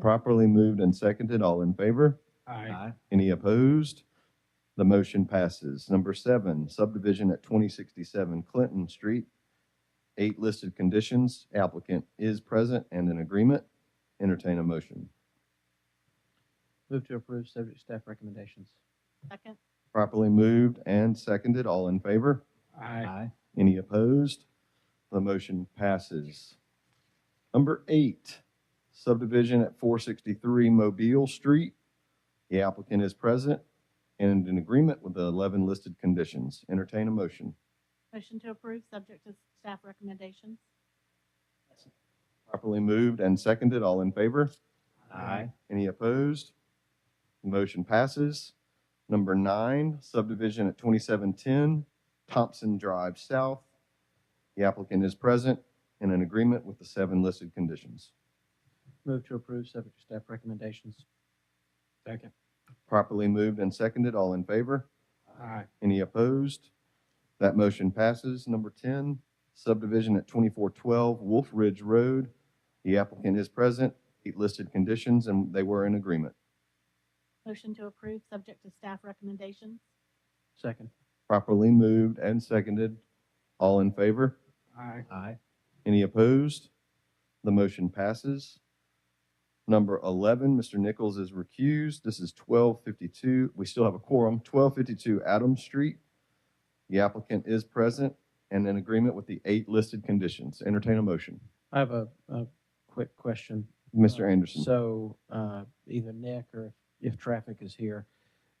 properly moved and seconded. All in favor? Aye. Any opposed? The motion passes. Number seven, subdivision at twenty sixty-seven Clinton Street. Eight listed conditions. Applicant is present and in agreement. Entertain a motion. Move to approve subject staff recommendations. Second. Properly moved and seconded. All in favor? Aye. Any opposed? The motion passes. Number eight, subdivision at four sixty-three Mobile Street. The applicant is present and in agreement with the eleven listed conditions. Entertain a motion. Motion to approve, subject to staff recommendations. Properly moved and seconded. All in favor? Aye. Any opposed? Motion passes. Number nine, subdivision at twenty-seven ten Thompson Drive South. The applicant is present and in agreement with the seven listed conditions. Move to approve subject to staff recommendations. Second. Properly moved and seconded. All in favor? Aye. Any opposed? That motion passes. Number ten, subdivision at twenty-four twelve Wolf Ridge Road. The applicant is present, eight listed conditions, and they were in agreement. Motion to approve, subject to staff recommendations. Second. Properly moved and seconded. All in favor? Aye. Aye. Any opposed? The motion passes. Number 11, Mr. Nichols is recused. This is 1252, we still have a quorum, 1252 Adams Street. The applicant is present and in agreement with the eight listed conditions. Entertain a motion. I have a, a quick question. Mr. Anderson. So, uh, either Nick or if, if traffic is here,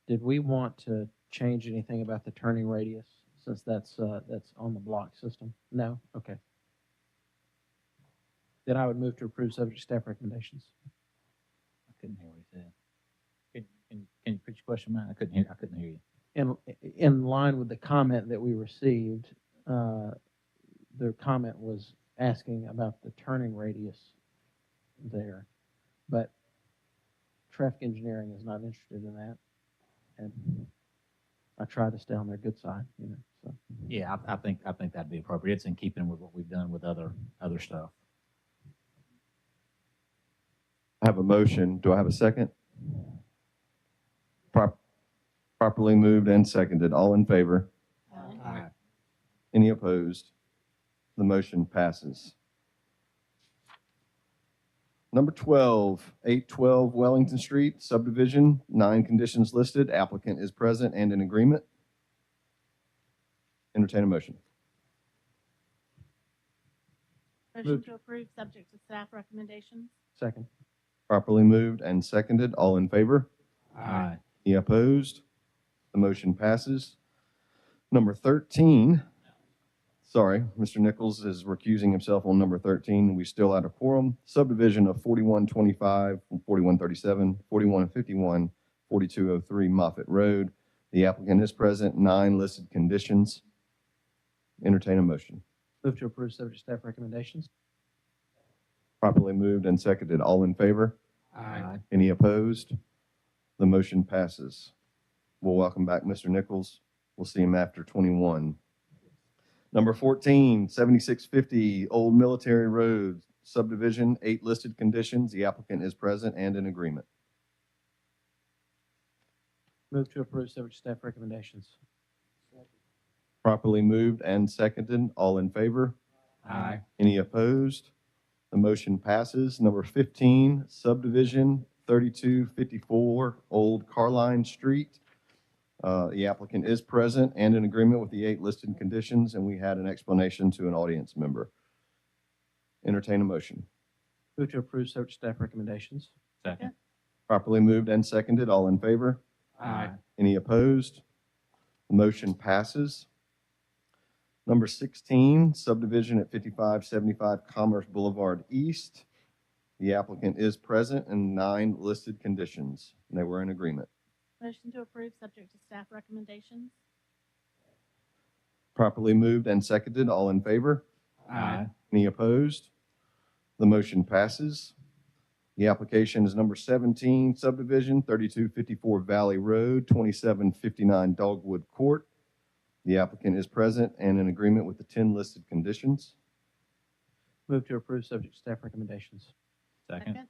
did we want to change anything about the turning radius since that's, uh, that's on the block system? No? Okay. Then I would move to approve subject to staff recommendations. I couldn't hear what he said. Can, can, can you put your question back? I couldn't hear, I couldn't hear you. in in line with the comment that we received, uh, the comment was asking about the turning radius there, but traffic engineering is not interested in that, and I try to stay on their good side, you know. So Yeah, I, I think, I think that'd be appropriate. It's in keeping with what we've done with other, other stuff. I have a motion. Do I have a second? Prop- Properly moved and seconded. All in favor? Aye. Aye. Any opposed? The motion passes. Number 12, 812 Wellington Street subdivision, nine conditions listed. Applicant is present and in agreement. Entertain a motion. Motion Move. to approve, subject to staff recommendations. second, Properly moved and seconded. All in favor? Aye. Any opposed? The motion passes. Number 13, sorry, Mr. Nichols is recusing himself on number 13. We still had a quorum. Subdivision of 4125, 4137, 4151, 4203 Moffett Road. The applicant is present, nine listed conditions. Entertain a motion. move to approve subject to staff recommendations. Properly moved and seconded. All in favor? Aye. Any opposed? The motion passes. We'll welcome back Mr. Nichols. We'll see him after 21. Number 14, 7650 Old Military Road subdivision, eight listed conditions. The applicant is present and in agreement. Move to approve subject to staff recommendations. Properly moved and seconded. All in favor? Aye. Any opposed? The motion passes. Number 15, subdivision 3254 Old Carline Street. Uh, The applicant is present and in agreement with the eight listed conditions, and we had an explanation to an audience member. Entertain a motion. Move to approve subject to staff recommendations. Second. Properly moved and seconded. All in favor? Aye. Any opposed? Motion passes. Number 16, subdivision at 5575 Commerce Boulevard East. The applicant is present and nine listed conditions. They were in agreement. Motion to approve, subject to staff recommendations. Properly moved and seconded. All in favor? Aye. Any opposed? The motion passes. The application is number 17, subdivision 3254 Valley Road, 2759 Dogwood Court. The applicant is present and in agreement with the 10 listed conditions. Move to approve subject to staff recommendations. Second.